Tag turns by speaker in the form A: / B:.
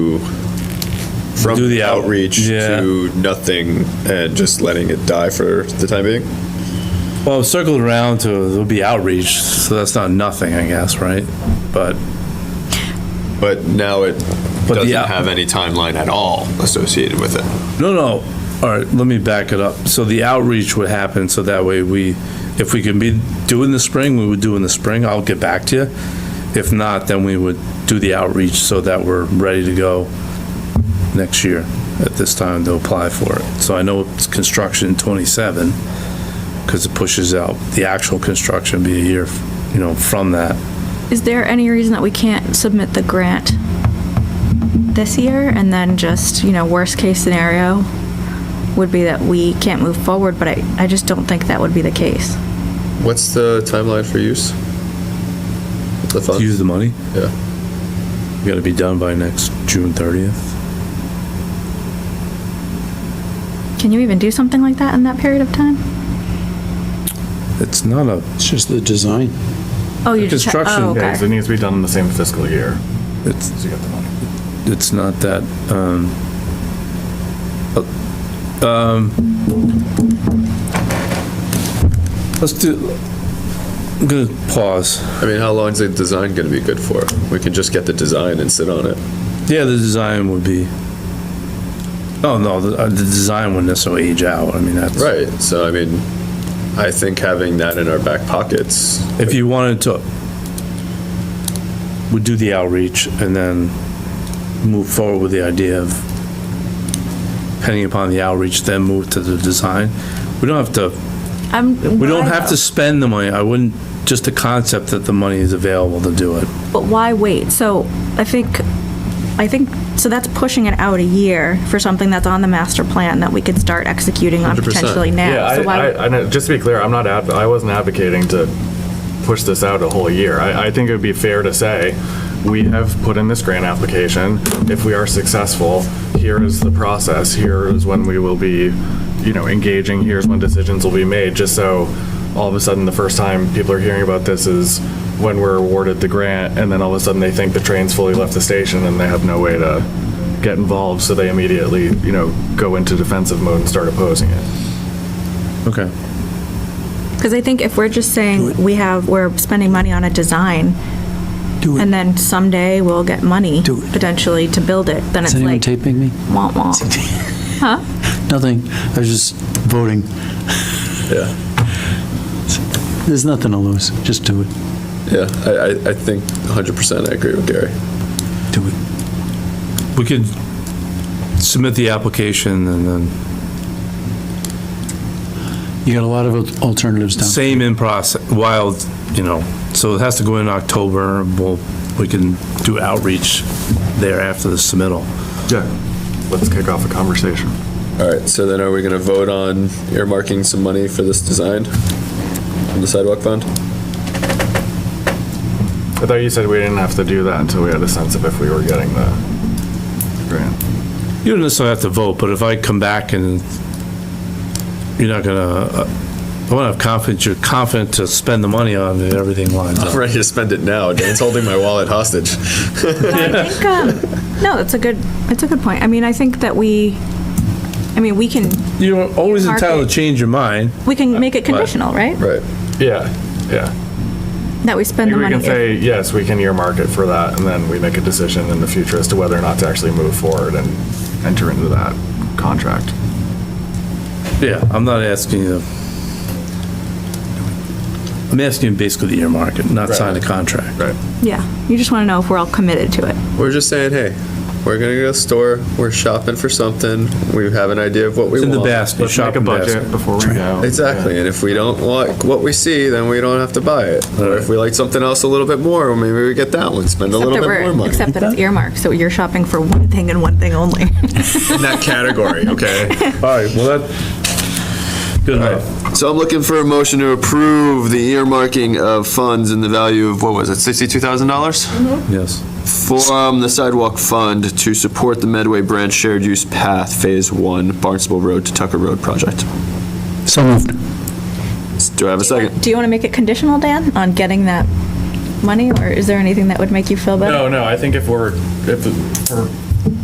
A: from
B: Do the out-
A: outreach
B: yeah.
A: to nothing and just letting it die for the time being.
B: Well, I've circled around to, there'll be outreach, so that's not nothing, I guess, right? But,
A: But now it
B: But the
A: doesn't
B: out-
A: have any timeline at all associated with it.
B: no, no, all right, let me back it up. So the outreach would happen, so that way we, if we can be, do it in the spring, we would do it in the spring, I'll get back to you. If not, then we would do the outreach so that we're ready to go next year at this time to apply for it. So I know it's construction twenty-seven, because it pushes out the actual construction be a year, you know, from that.
C: Is there any reason that we can't submit the grant this year and then just, you know, worst case scenario would be that we can't move forward, but I, I just don't think that would be the case.
A: What's the timeline for use? The fund?
B: Use the money?
A: Yeah.
B: We gotta be done by next June thirtieth.
C: Can you even do something like that in that period of time?
B: It's not a,
D: It's just the design.
C: Oh, you just.
B: Construction.
C: Oh,
E: Yeah, 'cause
C: okay.
E: it needs to be done in the same fiscal year,
B: it's,
E: so you got the money.
B: it's not that, um, uh, um, let's do, I'm gonna pause.
A: I mean, how long is the design going to be good for? We can just get the design and sit on it.
B: Yeah, the design would be, oh, no, the, uh, the design wouldn't necessarily age out, I mean, that's.
A: Right. So, I mean, I think having that in our back pockets,
B: If you wanted to, we'd do the outreach and then move forward with the idea of, depending upon the outreach, then move to the design. We don't have to,
C: I'm.
B: we don't
C: why
B: have to
C: though?
B: spend the money. I wouldn't, just the concept that the money is available to do it.
C: But why wait? So I think, I think, so that's pushing it out a year for something that's on the master plan that we could start executing on
A: 100%.
C: potentially
E: Yeah,
C: now.
E: I,
C: So why?
E: I, I know, just to be clear, I'm not, adv- I wasn't advocating to push this out a whole year. I, I think it would be fair to say, we have put in this grant application. If we are successful, here is the process, here is when we will be, you know, engaging, here's when decisions will be made, just so all of a sudden, the first time people are hearing about this is when we're awarded the grant, and then all of a sudden, they think the train's fully left the station and they have no way to get involved, so they immediately, you know, go into defensive mode and start opposing it.
B: Okay.
C: Because I think if we're just saying we have, we're spending money on a design,
D: Do
C: and then someday we'll get money
D: Do it.
C: potentially to build it, then
D: Is
C: it's
D: anyone
C: like,
D: taping me?
C: womp womp.
D: Nothing. I was just voting.
A: yeah.
D: There's nothing to lose. Just do it.
A: Yeah, I, I, I think 100% I agree with Gary.
D: Do it.
B: We could submit the application and then,
D: You got a lot of alternatives down.
B: same in process, while, you know, so it has to go in October. We'll, we can do outreach there after the submittal.
E: Yeah. Let's kick off a conversation.
A: All right, so then are we going to vote on earmarking some money for this design from the sidewalk fund?
E: I thought you said we didn't have to do that until we had a sense of if we were getting the grant.
B: You don't necessarily have to vote, but if I come back and you're not gonna, uh, I want to have confidence, you're confident to spend the money on it, everything lines
A: I'm
B: up.
A: ready to spend it now. Dan's holding my wallet hostage.
C: I think, um, no, it's a good, it's a good point. I mean, I think that we, I mean, we can,
B: You're always entitled
C: Market.
B: to change your mind.
C: we
A: Uh,
C: can make it conditional, right?
A: Right.
E: Yeah, yeah.
C: That we spend the
E: We
C: money.
E: can
C: if-
E: say, yes, we can earmark it for that, and then we make a decision in the future as to whether or not to actually move forward and enter into that contract.
B: Yeah, I'm not asking you. I'm asking you basically the earmark, it, not sign a contract.
E: Right.
C: Yeah, you just want to know if we're all committed to it.
A: We're just saying, hey, we're going to go to the store. We're shopping for something. We have an idea of what we
B: It's in
A: want.
B: the basket,
E: Let's make a
B: shopping basket.
E: budget before we go.
A: Exactly. And if we don't like what we see, then we don't have to buy it. Or if we like something else a little bit more, maybe we get that one, spend a
C: Except
A: little bit
C: that
A: more
C: we're,
A: money.
C: except that it's earmarked, so you're shopping for one thing and one thing only.
A: In that category, okay?
B: All right, well, that, good enough.
A: So I'm looking for a motion to approve the earmarking of funds in the value of, what was it, $62,000?
B: Yes.
A: From the sidewalk fund to support the Medway Branch Shared Use Path Phase 1, Barnstable Road to Tucker Road project.
D: So moved.
A: Do I have a second?
C: Do you want to make it conditional, Dan, on getting
E: Oh,
C: that money, or is there anything that would make you feel better?
E: No, no, I think if we're, if, for